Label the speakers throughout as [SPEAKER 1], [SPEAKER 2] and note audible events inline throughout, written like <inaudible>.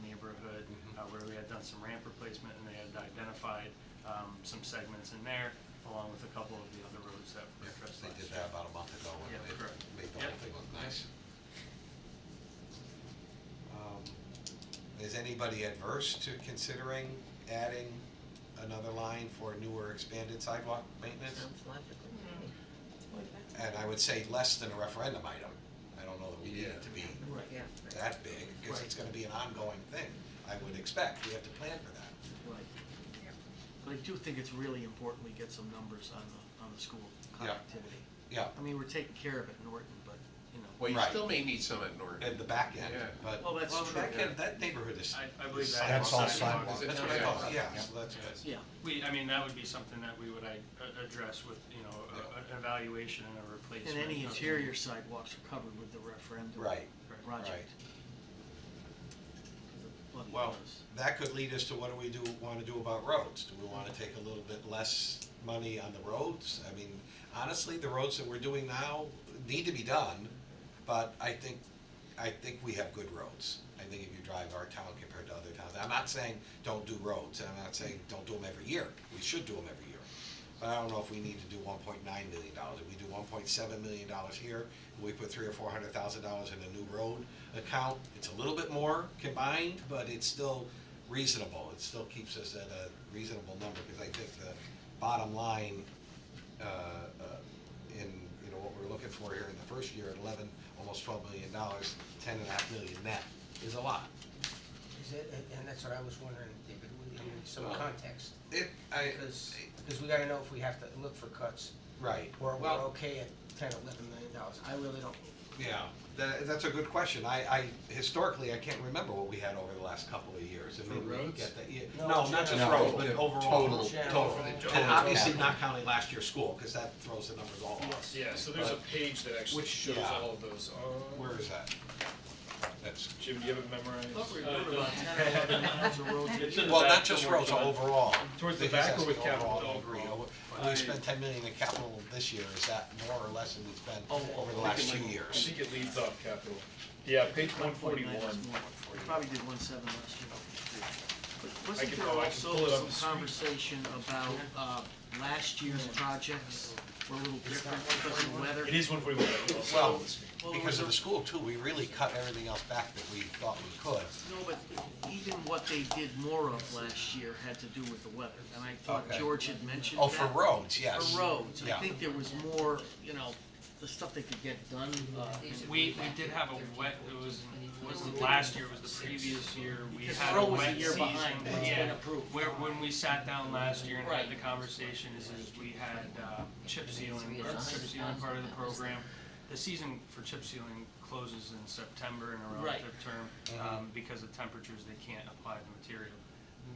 [SPEAKER 1] Mm-hmm.
[SPEAKER 2] uh, on some ramp replacement, and they had identified um, some segments in there, along with a couple of the other roads that were addressed
[SPEAKER 1] They
[SPEAKER 2] last year.
[SPEAKER 1] did that about a month ago,
[SPEAKER 2] Yeah,
[SPEAKER 1] and it
[SPEAKER 2] correct.
[SPEAKER 1] made the
[SPEAKER 2] Yep.
[SPEAKER 1] whole thing look nice. Um, Is anybody adverse to considering adding another line for newer expanded sidewalk maintenance?
[SPEAKER 3] Sounds logical to me.
[SPEAKER 1] And I would say less than a referendum item. I don't know that we need it to be
[SPEAKER 2] Right.
[SPEAKER 3] Yeah.
[SPEAKER 1] that big, because it's gonna be an ongoing thing, I would expect, we have to plan for that.
[SPEAKER 4] Right. But I do think it's really important we get some numbers on the, on the school
[SPEAKER 1] Yeah.
[SPEAKER 4] connectivity.
[SPEAKER 1] Yeah,
[SPEAKER 4] I mean, we're taking care of it in Norton, but, you know.
[SPEAKER 5] Well, you
[SPEAKER 1] Right.
[SPEAKER 5] still may need some at Norton.
[SPEAKER 1] and the back end,
[SPEAKER 5] Yeah.
[SPEAKER 1] but.
[SPEAKER 4] Well, that's
[SPEAKER 1] Well,
[SPEAKER 4] true,
[SPEAKER 1] That,
[SPEAKER 4] yeah.
[SPEAKER 1] can- that neighborhood is.
[SPEAKER 2] I- I believe
[SPEAKER 1] is
[SPEAKER 2] that
[SPEAKER 6] That's all
[SPEAKER 2] sidewalk.
[SPEAKER 1] sidewalk.
[SPEAKER 5] Is it?
[SPEAKER 1] That's what I thought,
[SPEAKER 5] Yeah.
[SPEAKER 1] yeah, so that's good.
[SPEAKER 4] Yeah,
[SPEAKER 2] We, I mean, that would be something that we would I, a- address with, you know, a- a- an evaluation and a
[SPEAKER 4] and
[SPEAKER 2] replacement.
[SPEAKER 4] any
[SPEAKER 2] of-
[SPEAKER 4] interior sidewalks are covered with the referendum.
[SPEAKER 1] Right, right.
[SPEAKER 4] Project. Well, it
[SPEAKER 1] Well,
[SPEAKER 4] was.
[SPEAKER 1] that could lead us to what do we do, wanna do about roads? Do we wanna take a little bit less money on the roads? I mean, honestly, the roads that we're doing now need to be done, but I think, I think we have good roads. I think if you drive our town compared to other towns, I'm not saying don't do roads, and I'm not saying don't do them every year, we should do them every year. But I don't know if we need to do one point nine million dollars, if we do one point seven million dollars here, we put three or four hundred thousand dollars in a new road account, it's a little bit more combined, but it's still reasonable, it still keeps us at a reasonable number, because I think the bottom line, uh, uh, in, you know, what we're looking for here in the first year, at eleven, almost twelve million dollars, ten and a half million net is a lot.
[SPEAKER 7] Is it, and- and that's what I was wondering, David, we- in some
[SPEAKER 1] Well-
[SPEAKER 7] context,
[SPEAKER 1] It, I,
[SPEAKER 7] because, because we gotta know if we have to look for cuts,
[SPEAKER 1] right,
[SPEAKER 7] or we're
[SPEAKER 1] well,
[SPEAKER 7] okay at ten, eleven million dollars, I really don't.
[SPEAKER 1] yeah, that, that's a good question, I, I, historically, I can't remember what we had over the last couple of years, and
[SPEAKER 5] For
[SPEAKER 1] maybe we could
[SPEAKER 5] roads?
[SPEAKER 1] get that, yeah,
[SPEAKER 7] No,
[SPEAKER 1] no, not just
[SPEAKER 6] general.
[SPEAKER 1] roads, but
[SPEAKER 5] Yeah,
[SPEAKER 1] overall.
[SPEAKER 5] total-
[SPEAKER 7] General.
[SPEAKER 5] total.
[SPEAKER 1] And obviously
[SPEAKER 6] capital.
[SPEAKER 1] not counting last year's school, cause that throws the numbers all off.
[SPEAKER 8] Yeah, so there's a
[SPEAKER 1] But-
[SPEAKER 8] page that actually
[SPEAKER 1] Which-
[SPEAKER 8] shows
[SPEAKER 1] yeah.
[SPEAKER 8] all of those. Uh,
[SPEAKER 1] Where is that? That's
[SPEAKER 8] Jim, do you have it memorized?
[SPEAKER 4] Thought we were
[SPEAKER 8] Uh,
[SPEAKER 4] doing about ten or
[SPEAKER 8] <laughs>
[SPEAKER 4] eleven miles of
[SPEAKER 2] <laughs>
[SPEAKER 4] road
[SPEAKER 8] It's
[SPEAKER 4] to
[SPEAKER 8] in the
[SPEAKER 1] Well,
[SPEAKER 8] back
[SPEAKER 1] not just
[SPEAKER 8] somewhere,
[SPEAKER 1] roads,
[SPEAKER 8] John.
[SPEAKER 1] overall.
[SPEAKER 8] Towards the
[SPEAKER 1] I think
[SPEAKER 8] back or
[SPEAKER 1] that's
[SPEAKER 8] with
[SPEAKER 1] the overall,
[SPEAKER 8] capital Oh,
[SPEAKER 1] I agree.
[SPEAKER 8] overall?
[SPEAKER 1] When We spent ten million in capital this year, is that more or less than we spent over the last few
[SPEAKER 8] Oh, I
[SPEAKER 1] years?
[SPEAKER 8] think it leads off capital. Yeah, page one
[SPEAKER 4] 1.9
[SPEAKER 8] forty-one.
[SPEAKER 4] is more. We probably did one seven last year. But
[SPEAKER 8] I
[SPEAKER 4] wasn't
[SPEAKER 8] can-
[SPEAKER 4] there
[SPEAKER 8] oh, I can pull
[SPEAKER 4] also
[SPEAKER 8] it up
[SPEAKER 4] some
[SPEAKER 8] the screen.
[SPEAKER 4] conversation about, uh, last year's projects were a little different because of weather?
[SPEAKER 8] It is one forty-one.
[SPEAKER 1] Well,
[SPEAKER 4] Well,
[SPEAKER 1] because
[SPEAKER 4] it
[SPEAKER 1] of the
[SPEAKER 4] was
[SPEAKER 1] school too, we really cut everything else back that we thought we could.
[SPEAKER 4] No, but even what they did more of last year had to do with the weather, and I thought
[SPEAKER 1] Okay.
[SPEAKER 4] George had mentioned that.
[SPEAKER 1] Oh, for roads, yes.
[SPEAKER 4] For roads, I
[SPEAKER 1] Yeah.
[SPEAKER 4] think there was more, you know, the stuff that could get done, uh, in-
[SPEAKER 2] We, we did have a wet, it was, it wasn't last year, it was the previous year, we
[SPEAKER 4] Because
[SPEAKER 2] had a
[SPEAKER 4] Roe was a
[SPEAKER 2] wet
[SPEAKER 4] year
[SPEAKER 2] season.
[SPEAKER 4] behind, it's
[SPEAKER 2] Yeah.
[SPEAKER 4] been approved.
[SPEAKER 2] Where, when we sat down last year and had
[SPEAKER 4] Right.
[SPEAKER 2] the conversation, is, is we had, uh, chip sealing, or chip sealing part of the program. The season for chip sealing closes in September in a
[SPEAKER 4] Right.
[SPEAKER 2] relative term, um, because of temperatures, they can't apply the material.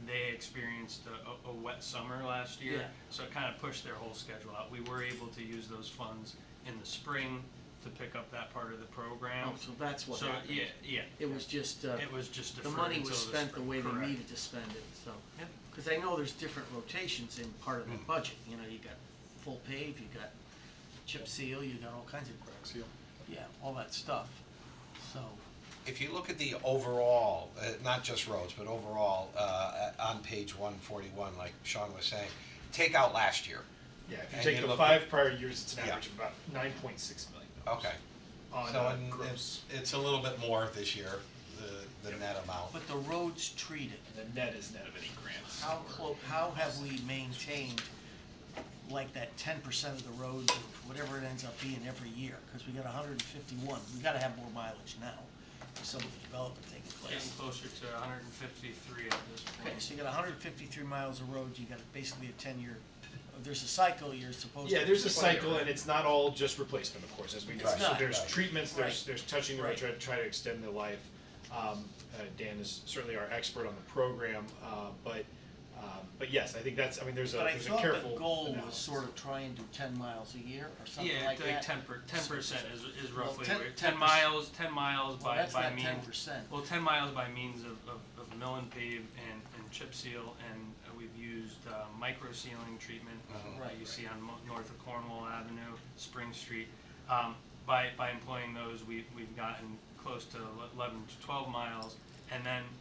[SPEAKER 2] They experienced a, a, a wet summer last year,
[SPEAKER 4] Yeah.
[SPEAKER 2] so it kind of pushed their whole schedule out. We were able to use those funds in the spring to pick up that part of the program.
[SPEAKER 4] oh, so that's what
[SPEAKER 2] So,
[SPEAKER 4] happened.
[SPEAKER 2] yeah, yeah,
[SPEAKER 4] It was just, uh,
[SPEAKER 2] it was just
[SPEAKER 4] the
[SPEAKER 2] deferred
[SPEAKER 4] money
[SPEAKER 2] until
[SPEAKER 4] was
[SPEAKER 2] the
[SPEAKER 4] spent the
[SPEAKER 2] spring.
[SPEAKER 4] way they
[SPEAKER 2] Correct.
[SPEAKER 4] needed to spend it, so.
[SPEAKER 2] Yep.
[SPEAKER 4] Cause I know there's different rotations in part of the
[SPEAKER 1] Mm.
[SPEAKER 4] budget, you know, you got full pave, you got chip seal, you got all kinds of. Crack seal. Yeah, all that stuff, so,
[SPEAKER 1] If you look at the overall, uh, not just roads, but overall, uh, on page one forty-one, like Sean was saying, take out last year.
[SPEAKER 8] Yeah, if
[SPEAKER 1] And
[SPEAKER 8] you take
[SPEAKER 1] you
[SPEAKER 8] the
[SPEAKER 1] look-
[SPEAKER 8] five prior years, it's an
[SPEAKER 1] Yeah.
[SPEAKER 8] average of about nine point six million dollars.
[SPEAKER 1] Okay.
[SPEAKER 8] On
[SPEAKER 1] So
[SPEAKER 8] uh,
[SPEAKER 1] and
[SPEAKER 8] gross.
[SPEAKER 1] it's, it's a little bit more this year, the, the net amount.
[SPEAKER 4] but the roads treated,
[SPEAKER 8] And the net is net of any grants.
[SPEAKER 4] how
[SPEAKER 8] or-
[SPEAKER 4] clo- how have we maintained like that ten percent of the roads, or whatever it ends up being every year? Cause we got hundred and fifty-one, we gotta have more mileage now, with some of the development taking
[SPEAKER 2] Getting
[SPEAKER 4] place.
[SPEAKER 2] closer to hundred and fifty-three at this
[SPEAKER 4] Okay,
[SPEAKER 2] point.
[SPEAKER 4] so you got hundred and fifty-three miles of road, you got basically a ten-year, there's a cycle you're supposed to.
[SPEAKER 8] Yeah, there's a
[SPEAKER 4] Right.
[SPEAKER 8] cycle, and it's not all just replacement, of course, as we know.
[SPEAKER 4] It's
[SPEAKER 8] So
[SPEAKER 4] not.
[SPEAKER 8] there's treatments, there's,
[SPEAKER 4] Right.
[SPEAKER 8] there's touching the road, try,
[SPEAKER 4] Right.
[SPEAKER 8] try to extend the life. Um, uh, Dan is certainly our expert on the program, uh, but, um, but yes, I think that's, I mean, there's a,
[SPEAKER 4] But I
[SPEAKER 8] there's a
[SPEAKER 4] thought
[SPEAKER 8] careful.
[SPEAKER 4] the goal was
[SPEAKER 8] analysis.
[SPEAKER 4] sort of try and do ten miles a year or something
[SPEAKER 2] Yeah,
[SPEAKER 4] like that.
[SPEAKER 2] like ten per, ten percent is, is
[SPEAKER 4] Well,
[SPEAKER 2] roughly,
[SPEAKER 4] ten-
[SPEAKER 2] where-
[SPEAKER 4] ten
[SPEAKER 2] ten
[SPEAKER 4] perc-
[SPEAKER 2] miles, ten miles
[SPEAKER 4] Well,
[SPEAKER 2] by,
[SPEAKER 4] that's
[SPEAKER 2] by
[SPEAKER 4] not
[SPEAKER 2] means.
[SPEAKER 4] ten percent.
[SPEAKER 2] Well, ten miles by means of, of, of mill and pave and, and chip seal, and uh, we've used, uh, micro sealing treatment, uh,
[SPEAKER 1] Mhm.
[SPEAKER 2] that
[SPEAKER 4] Uh-huh. Right,
[SPEAKER 2] you
[SPEAKER 4] right.
[SPEAKER 2] see on Mo- north of Cornwall Avenue, Spring Street. Um, by, by employing those, we, we've gotten close to eleven to twelve miles, and then